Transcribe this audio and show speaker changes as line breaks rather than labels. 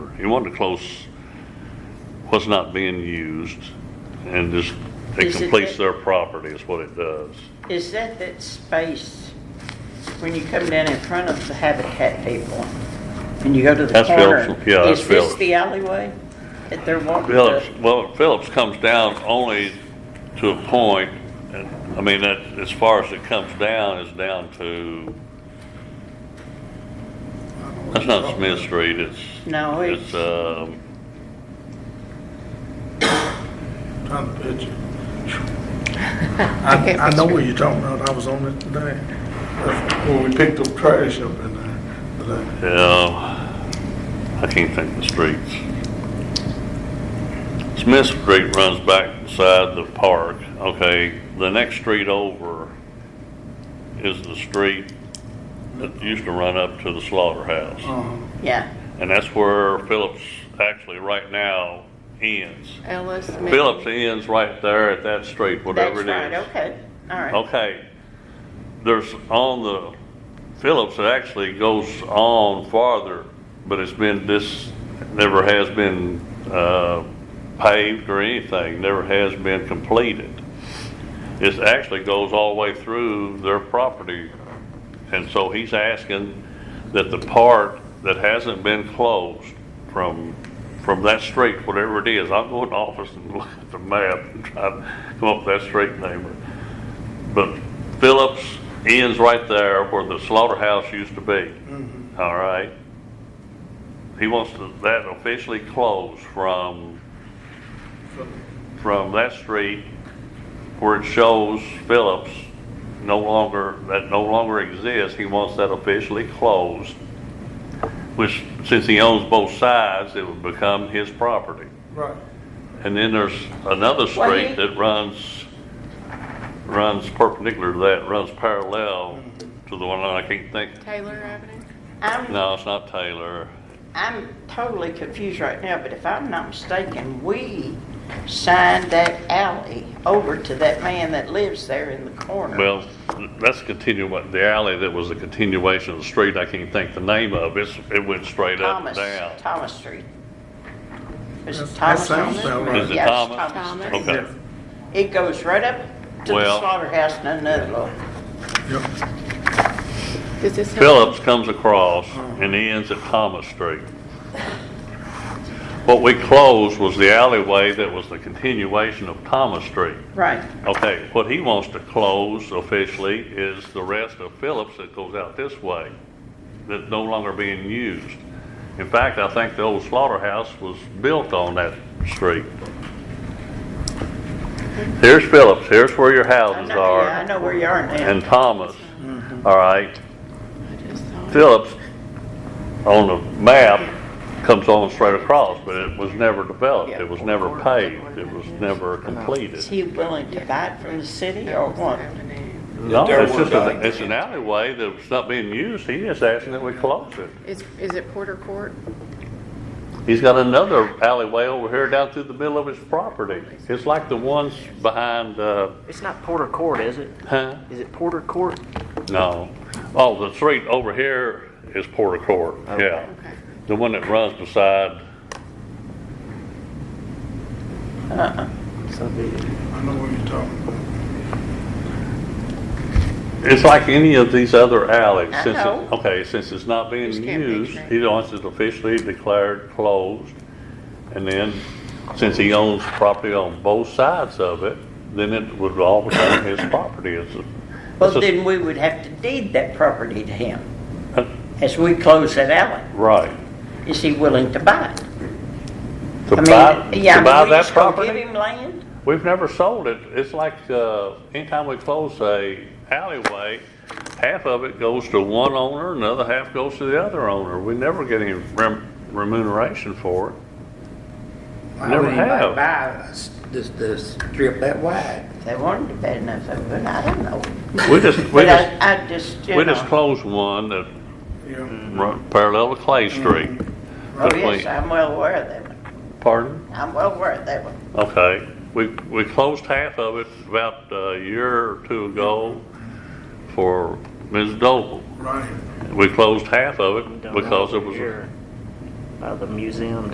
you want to close what's not being used and just, it
Is it
completes
that-
their property is what it does.
Is that that space when you come down in front of the Habitat people and you go to the
That's
corner?
Phillips, yeah, that's
Is
Phillips.
this the alleyway that they're walking? up?
Phillips, well, Phillips comes down only to a point, and, I mean, that, as far as it comes down, is down to, that's not Smith Street, it's,
No,
it's,
it's,
um,
Trying to picture. I, I know what you're talking about, I was on it today, That's when we picked up trash up in there today.
yeah, I can't think of the streets. Smith Street runs back beside the park, okay, the next street over is the street that used to run up to the slaughterhouse.
Oh.
Uh,
yeah.
And that's where Phillips actually right now ends.
Ellis. Mill.
Phillips ends right there at that street, whatever it
That's right,
is.
okay, all right.
Okay. There's on the Phillips, it actually goes on farther, but it's been this, never has been uh, paved or anything, never has been completed. It actually goes all the way through their property. And so he's asking that the part that hasn't been closed from, from that street, whatever it is, I'll go in the office and look at the map and try to come up with that street name. But Phillips ends right there where the slaughterhouse used to be. All right? He wants to- that officially closed from, from that street where it shows Phillips no longer, that no longer exists. He wants that officially closed, which, since he owns both sides, it would become his property.
Right,
And then there's another
Well, he-
street that runs, runs perpendicular to that, runs parallel to the one that I can't think.
Taylor Avenue.
I'm,
No, it's not Taylor.
I'm totally confused right now, but if I'm not mistaken, we signed that alley over to that man that lives there in the corner.
Well, that's continue, what- the alley that was a continuation of the street, I can't think the name of. It's, it went straight up and
Thomas,
down.
Thomas Street. Is it
That
Thomas on
sounds
this?
about right.
Is it
Yes,
Thomas?
Thomas Street.
Okay.
yeah,
It goes right up to the
Well-
slaughterhouse and another little.
yeah,
Does this? have-
Phillips comes across and ends at Thomas Street. What we closed was the alleyway that was the continuation of Thomas Street.
Right.
Okay, what he wants to close officially is the rest of Phillips that goes out this way, that's no longer being used. In fact, I think the old slaughterhouse was built on that street. Here's Phillips, here's where your
I
houses
know, yeah, I
are,
know where you are now.
and Thomas, all right?
I just saw it.
Phillips on the map comes on straight across, but it was never developed, it was never paved, it was never completed.
Is he willing to buy it from the city or
Ellis
what?
Avenue.
No,
There
it's
was
just, a-
not.
it's an alleyway that's not being used, he is asking that we close it.
Is, is it Porter Court?
He's got another alleyway over here down through the middle of his property. It's like the ones behind, uh,
It's not Porter Court, is it?
huh?
Is it Porter Court?
No. Oh, the street over here is Porter Court, yeah.
Okay.
The one that runs beside,
I know what you're talking about.
it's like any of these other alleys.
I
Since it-
know.
Okay, since it's not being
Just can't
used,
picture it.
he wants it officially declared closed. And then, since he owns property on both sides of it, then it would all become his property. It's a-
Well,
it's a-
then we would have to deed that property to him as we close that alley.
uh, Right.
Is he willing to buy it?
To
I
buy,
mean, yeah,
to
I
buy
mean, we
that
just gonna give
property?
him land?
We've never sold it. It's like, uh, anytime we close a alleyway, half of it goes to one owner, another half goes to the other owner. We never get any rem- remuneration for it.
Why
Never
would anybody
have.
Buy this, this, this strip that wide.
If They wanted to bet enough of it, I don't know.
We just, we
But
just,
I, I just, you
we just
know,
closed one that
yeah.
run parallel to Clay Street.
oh
That
yes,
we-
I'm well aware of that one.
Pardon?
I'm well aware of that one.
Okay. We, we closed half of it about a year or two ago for Ms. Doble.
Right.
We closed half of it
Don't know
because
if
it was a
you're By the museum